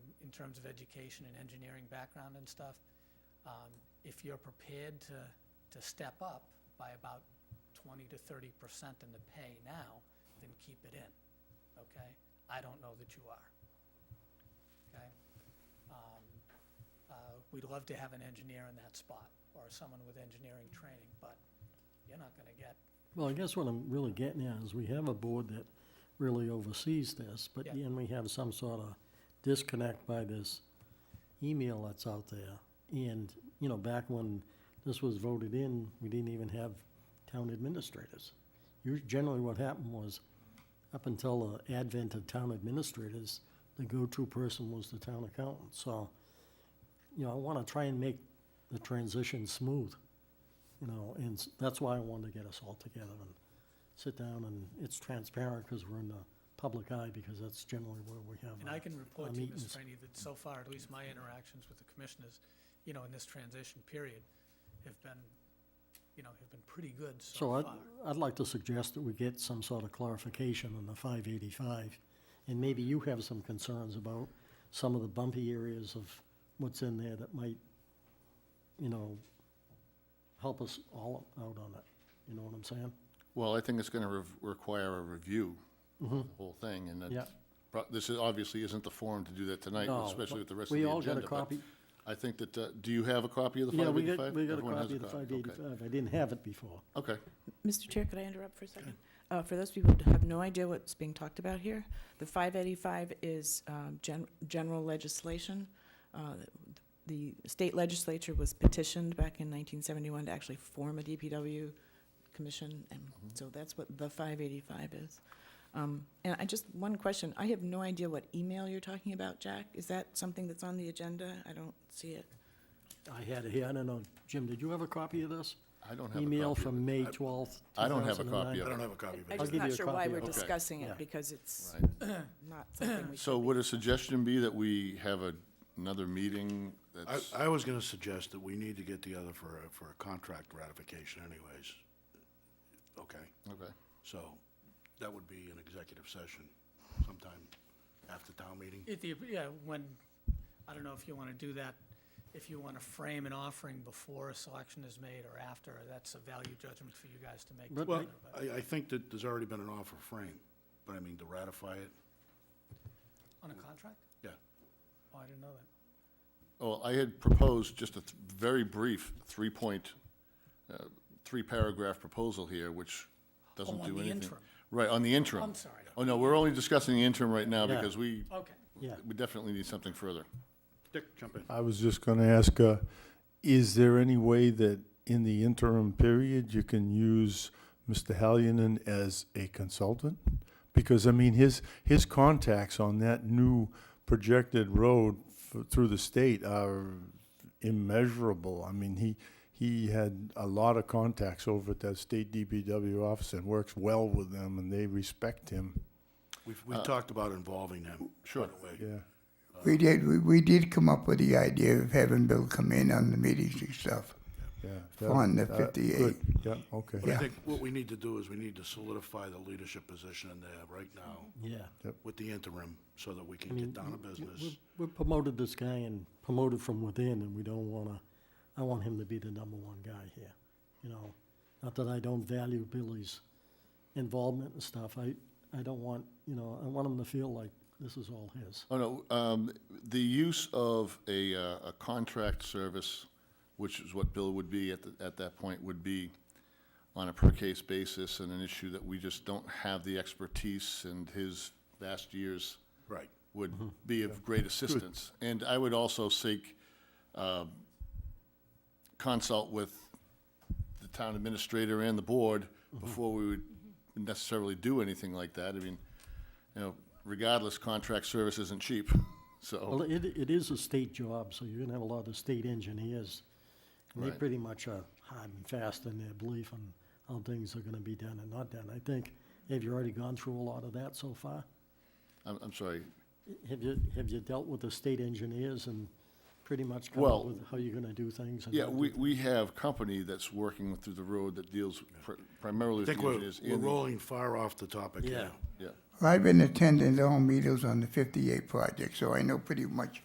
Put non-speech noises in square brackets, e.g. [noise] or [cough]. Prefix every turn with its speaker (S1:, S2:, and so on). S1: terms of education and engineering background and stuff, um, if you're prepared to, to step up by about twenty to thirty percent in the pay now, then keep it in, okay? I don't know that you are, okay? Um, uh, We'd love to have an engineer in that spot, or someone with engineering training, but you're not gonna get,
S2: Well, I guess what I'm really getting at is we have a board that really oversees this, but
S1: Yeah.
S2: then we have some sort of disconnect by this email that's out there. And, you know, back when this was voted in, we didn't even have town administrators. Us- Generally, what happened was, up until the advent of town administrators, the go-to person was the town accountant. So, you know, I want to try and make the transition smooth you know, and s- that's why I wanted to get us all together and sit down, and it's transparent because we're in the public eye, because that's generally where we have.
S1: and
S2: our-
S1: I can report
S2: our
S1: to you, Ms.
S2: meetings.
S1: Franny, that so far, at least my interactions with the commissioners, you know, in this transition period, have been, you know, have been pretty good so
S2: So I'd,
S1: far.
S2: I'd like to suggest that we get some sort of clarification on the five eighty-five, and maybe you have some concerns about some of the bumpy areas of what's in there that might, you know, help us all out on it, you know what I'm saying?
S3: Well, I think it's going to require a review of the whole thing, and
S2: Mm-hmm. Yeah.
S3: that's, pro- this is, obviously isn't the forum to do that tonight,
S2: No,
S3: especially with the
S2: but
S3: rest of
S2: we
S3: the agenda.
S2: all got a
S3: but
S2: copy.
S3: I think that, uh, do you have a copy of the
S2: Yeah, we
S3: 585?
S2: got, we got a
S3: Everyone has
S2: copy of the five
S3: okay.
S2: eighty-five, I didn't have it before.
S3: Okay,
S4: Mr. Chair, could I interrupt for a second? Uh, For those people who have no idea what's being talked about here, the 585 is um, gen- general legislation. Uh, The state legislature was petitioned back in 1971 to actually form a DPW commission, and so that's what the 585 is. Um, And I just, one question, I have no idea what email you're talking about, Jack. Is that something that's on the agenda? I don't see it.
S2: I had it here, I don't know, Jim, did you have a copy of this?
S3: I don't have a copy.
S2: Email
S3: of it.
S2: from May twelfth,
S3: I don't have a copy of it.
S5: I don't have a copy of
S4: I'm
S2: I'll
S5: it.
S4: just
S2: give
S4: not
S2: you a
S4: sure why
S2: copy
S4: we're
S2: of it.
S4: discussing
S2: Yeah.
S4: it, because it's
S3: Right.
S4: [clears throat] not something
S3: [clears throat]
S4: we should
S3: So would a suggestion be that we have a- another meeting
S5: I,
S3: that's,
S5: I was gonna suggest that we need to get together for a, for a contract ratification anyways. Okay,
S3: okay,
S5: so that would be an executive session sometime after town meeting.
S1: At the, yeah, when, I don't know if you want to do that, if you want to frame an offering before a selection is made or after, that's a value judgment for you guys to make.
S2: But-
S5: Well,
S1: together, but-
S5: I, I think that there's already been an offer frame, but I mean, to ratify it,
S1: On a contract?
S5: yeah.
S1: Oh, I didn't know that.
S3: well, Oh, I had proposed just a th- very brief three-point, uh, three-paragraph proposal here, which doesn't
S1: Oh,
S3: do
S1: on
S3: anything.
S1: the interim.
S3: Right, on the interim.
S1: I'm sorry.
S3: Oh, no, we're only discussing the interim right now
S2: Yeah.
S3: because we,
S1: Okay.
S2: Yeah.
S3: we definitely need something further.
S5: Dick, jump in.
S6: I was just going to ask, uh, is there any way that in the interim period, you can use Mr. Hallinan as a consultant? Because, I mean, his, his contacts on that new projected road f- through the state are immeasurable. I mean, he, he had a lot of contacts over at that state DPW office and works well with them, and they respect him.
S5: We've, we talked about involving them. Sure.
S6: Yeah.
S7: We did, we, we did come up with the idea of having Bill come in on the meetings and stuff.
S6: Yeah.
S7: Fund the
S6: that- that- uh, good.
S7: 58.
S6: Yeah, okay.
S5: But I
S7: Yeah.
S5: think what we need to do is we need to solidify the leadership position in there right now
S2: Yeah.
S5: with the interim, so that we can get down to business.
S2: We promoted this guy and promoted from within, and we don't wanna, I want him to be the number one guy here, you know? Not that I don't value Billy's involvement and stuff, I, I don't want, you know, I want him to feel like this is all his.
S3: Oh, no, um, the use of a, uh, a contract service, which is what Bill would be at, the- at that point, would be on a per-case basis and an issue that we just don't have the expertise and his vast years
S5: Right.
S3: would be of great assistance. And I would also seek, um, consult with the town administrator and the board before we would necessarily do anything like that. I mean, you know, regardless, contract service isn't cheap,
S2: Well,
S3: so,
S2: it, it is a state job, so you're gonna have a lot of state engineers. And they
S3: Right.
S2: pretty much are hard and fast in their belief on how things are gonna be done and not done. I think, have you already gone through a lot of that so far?
S3: I'm, I'm sorry.
S2: Have you, have you dealt with the state engineers and pretty much come
S3: Well-
S2: up with how you're gonna do things? and
S3: Yeah,
S2: how
S3: we,
S2: to-
S3: we have company that's working through the road that deals pri- primarily
S5: I
S3: with the
S5: think we're,
S3: engineers.
S5: we're
S3: and the-
S5: rolling far off the topic
S2: Yeah.
S5: here.
S3: Yeah.
S7: Well, I've been attending all meetings on the fifty-eight project, so I know pretty much